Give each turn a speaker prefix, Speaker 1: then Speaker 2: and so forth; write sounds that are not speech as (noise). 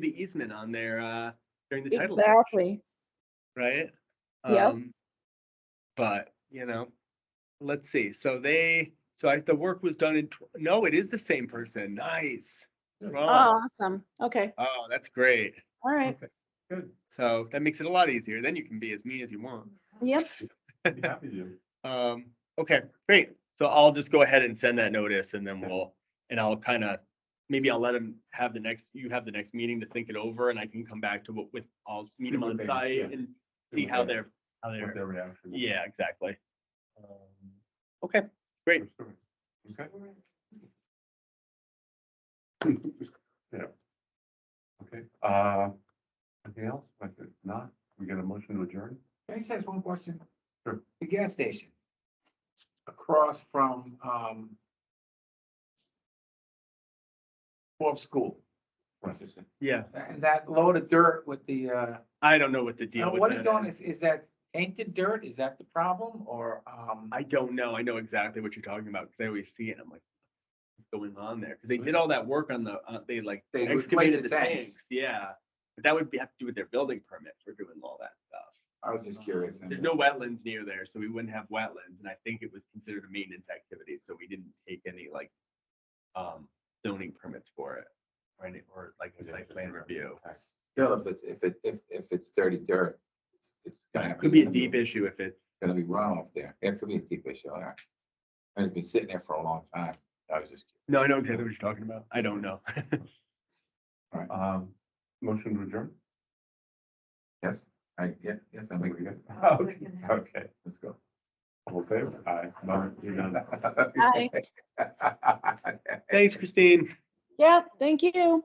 Speaker 1: the easement on there, uh, during the title, search,
Speaker 2: Exactly.
Speaker 1: right?
Speaker 2: Yep.
Speaker 1: Um, But, you know, let's see, so they, so I, the work was done in, tw- no, it is the same person, nice. Wrong.
Speaker 2: Awesome. Okay.
Speaker 1: Oh, that's great. (laughs)
Speaker 2: All right.
Speaker 3: Good,
Speaker 1: So that makes it a lot easier, then you can be as mean as you want.
Speaker 2: Yep.
Speaker 3: I'd be happy to.
Speaker 1: Um, okay, great. So I'll just go ahead and send that notice and then
Speaker 3: Yeah.
Speaker 1: we'll, and I'll kind of, maybe I'll let him have the next, you have the next meeting to think it over and I can come back to what with, I'll meet
Speaker 3: See
Speaker 1: him
Speaker 3: what
Speaker 1: on
Speaker 3: they- yeah.
Speaker 1: site and (laughs) see how
Speaker 3: what
Speaker 1: they're, how
Speaker 3: What
Speaker 1: they're,
Speaker 3: their reaction. is.
Speaker 1: yeah, exactly.
Speaker 3: Um,
Speaker 1: Okay, great.
Speaker 3: sure. Okay. (laughs) Yeah. Okay, uh, anything else? If not, we got a motion to adjourn?
Speaker 4: Can I just ask one question?
Speaker 3: Sure.
Speaker 4: The gas station across from, um, Wolf School.
Speaker 3: Right.
Speaker 1: Yeah,
Speaker 4: And that load of dirt with the, uh,
Speaker 1: I don't know what the
Speaker 4: now
Speaker 1: deal with
Speaker 4: what is
Speaker 1: that
Speaker 4: going,
Speaker 1: is.
Speaker 4: is, is that tainted dirt? Is that the problem or, um?
Speaker 1: I don't know. I know exactly what you're talking about because I always see it. and I'm like, what's going on there? Because they did all that work on the, uh, they like
Speaker 4: They replaced
Speaker 1: excavated the
Speaker 4: the tanks.
Speaker 1: tanks. Yeah. But that would be, have to do with their building permit for doing all that stuff.
Speaker 4: I was just curious. I
Speaker 1: There's
Speaker 4: mean,
Speaker 1: no wetlands near there, so we wouldn't have wetlands, and I think it was considered a maintenance activity, so we didn't take any like um zoning permits for it. Or any, or like a site plan review.
Speaker 4: Still, if it's, if it, if, if it's dirty dirt, it's, it's gonna.
Speaker 1: It could be a deep issue if it's,
Speaker 4: Gonna be runoff there. Yeah, It could be a deep issue, all right. And it's been sitting there for a long time. I was just,
Speaker 1: no, I know exactly what you're talking about. I don't know.
Speaker 3: Um, motion to adjourn?
Speaker 4: yes, I, yeah, yes, I
Speaker 3: Something
Speaker 4: think,
Speaker 3: we
Speaker 4: (laughs)
Speaker 3: good?
Speaker 2: I'll
Speaker 3: (laughs) Okay,
Speaker 2: second that.
Speaker 3: okay.
Speaker 4: let's go.
Speaker 1: (laughs)
Speaker 4: (laughs)
Speaker 3: All in favor? Aye. Bye. You're done.
Speaker 4: Bye.
Speaker 1: Thanks, Christine.
Speaker 2: Yeah. Thank you.